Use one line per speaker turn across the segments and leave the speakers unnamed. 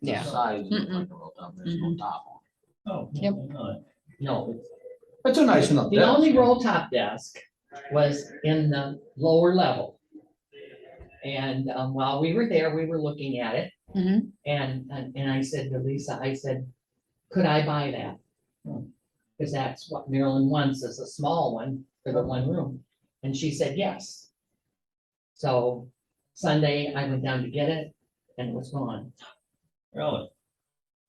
Yeah.
Sides. of the
Mm-mm.
microphone down there, there's no top on
Oh.
Yep.
it. No, it's- it's a nice enough.
The only roll top desk was in the lower level. And um, while we were there, we were looking at it.
Mhm.
And, and and I said to Lisa, I said, could I buy that? Because that's what Marilyn wants, is a small one for the one room. And she said, yes. So Sunday, I went down to get it and it was gone.
Really?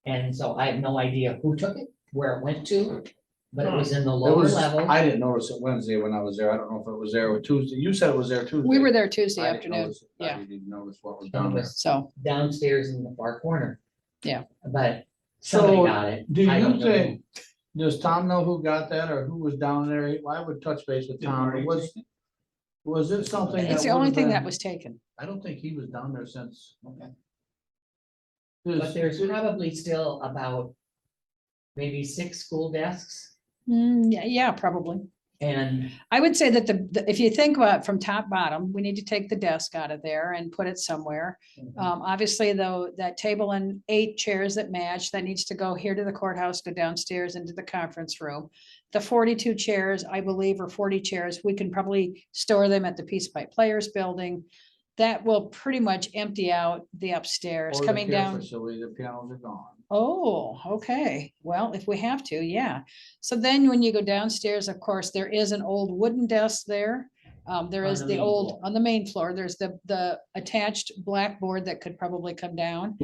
And so I have no idea who took it, where it went to, but
Hmm.
it was in the
It
lower
was,
level.
I didn't notice it Wednesday when I was there. I don't know if it was there or Tuesday. You said it was there Tuesday.
We were there Tuesday
I didn't
afternoon,
notice it. I
yeah.
Didn't notice what was
And it
down there.
was
so,
downstairs in the far corner.
Yeah.
But somebody
So
got it.
do
I don't
you
know
think, does Tom know who got that or who was down there? I would touch base with
Did
Tom.
Marty
Was, was it something?
it's the
that
only
would've
thing
been-
that was taken.
I don't think he was down there since.
Okay.
who,
There's-
But there's
there-
probably still about maybe six school desks
Mm, yeah, yeah, probably.
and
I would say that the, the- if you think about it from top bottom, we need to take the desk out of there and put it somewhere. Um, obviously though, that table and eight chairs that match, that needs to go here to the courthouse, go downstairs into the conference room. The forty-two chairs, I believe, or forty chairs, we can probably store them at the Peace Pipe Players Building. That will pretty much empty out the upstairs,
or the
coming
care
down.
Facility, the pianos are gone.
Oh, okay. Well, if we have to, yeah. So then when you go downstairs, of course, there is an old wooden desk there. Um, there
On
is
the
the
main
old,
floor.
on the main floor, there's the, the attached blackboard that could probably come down.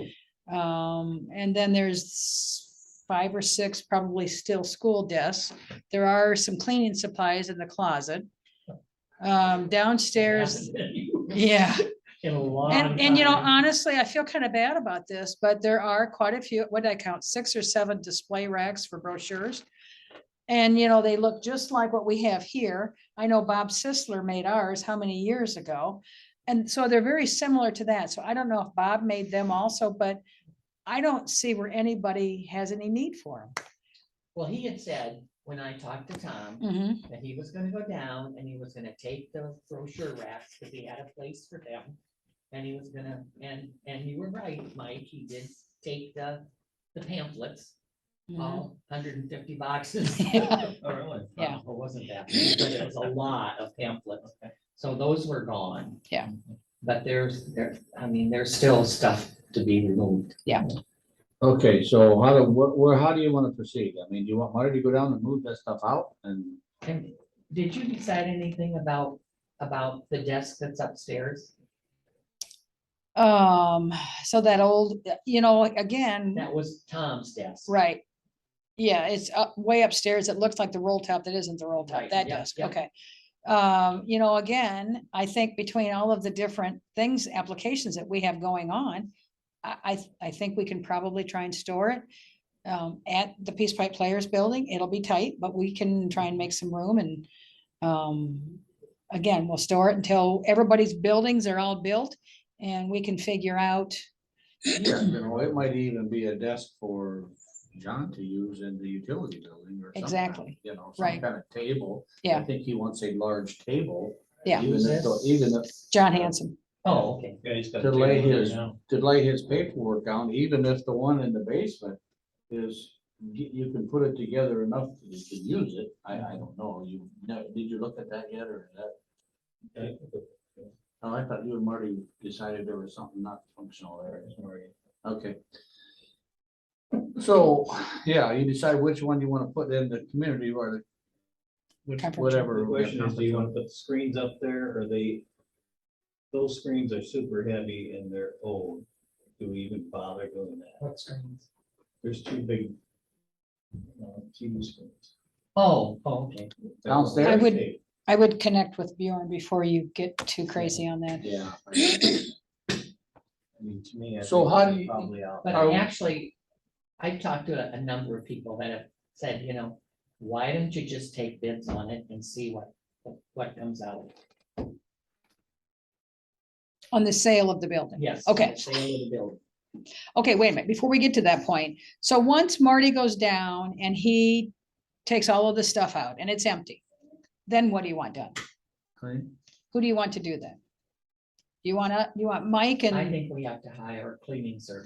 Um, and then there's five or six probably still school desks. There are some cleaning supplies in the closet. Um, downstairs, yeah.
in a long.
And, and you know, um,
time.
honestly, I feel kind of bad about this, but there are quite a few, what did I count, six or seven display racks for brochures. And, you know, they look just like what we have here. I know Bob Sisler made ours how many years ago? And so they're very similar to that. So I don't know if Bob made them also, but I don't see where anybody has any need for
Well, he had said, when I talked to Tom,
them.
that he was gonna go down and he was gonna take the brochure racks, because he had a place for them. And he was gonna, and, and you were right, Mike, he did take the, the pamphlets, all hundred and fifty boxes.
Oh, really?
Mm-hmm. Yeah.
It wasn't that, many, but it was a lot of pamphlets. So those were gone.
Yeah.
But there's, there, I mean, there's still stuff to be removed.
Okay, so how do, wh- where, how do you wanna proceed? I mean, do you want Marty to go down and move that stuff out and?
And did you decide anything about, about the desk that's upstairs?
Um, so that old, you know, again.
That was Tom's desk.
Right. Yeah, it's up way upstairs. It looks like the roll top. That isn't the roll top.
Right,
That
yeah,
does,
yeah.
okay. Um, you know, again, I think between all of the different things, applications that we have going on, I, I, th- I think we can probably try and store it um, at the Peace Pipe Players Building. It'll be tight, but we can try and make some room and um, again, we'll store it until everybody's buildings are all built and we can figure out
Yeah, you know, it might even be a desk for John to use in the utility building or something.
Exactly,
You know, some
right.
kind of table. I
Yeah.
think he wants a large table.
Yeah.
Even if, even if,
John Hanson.
Oh, okay.
Yeah, he's got.
To lay his-
now.
to lay his paperwork down, even if the one in the basement is, you, you can put it together enough that you can use it. I, I don't know. You, no, did you look at that yet or is that? Oh, I thought you and Marty decided there was something not functional there. Okay. So, yeah, you decide which one you want to put in the community or the, which-
Conference room.
The
whatever.
question is, do you want to put the screens up there or they? Those screens are super heavy and they're old. Do we even bother doing that?
What screens?
There's two big. uh, TV screens.
Oh, oh, okay.
Downstairs?
I would- I would connect with Bjorn before you get too crazy on that.
Yeah.
I mean, to me. I
So
think
how
it's
do you-
Probably out.
But
Are we-
actually, I've talked to a, a number of people that have said, you know, why don't you just take bids on it and see what, what comes out?
On the sale of the building.
Yes.
Okay.
Sale of the building.
Okay, wait a minute, before we get to that point. So once Marty goes down and he takes all of the stuff out and it's empty, then what do you want done? Who do you want to do that? You wanna, you want Mike
I
and?
think we have to hire a cleaning service.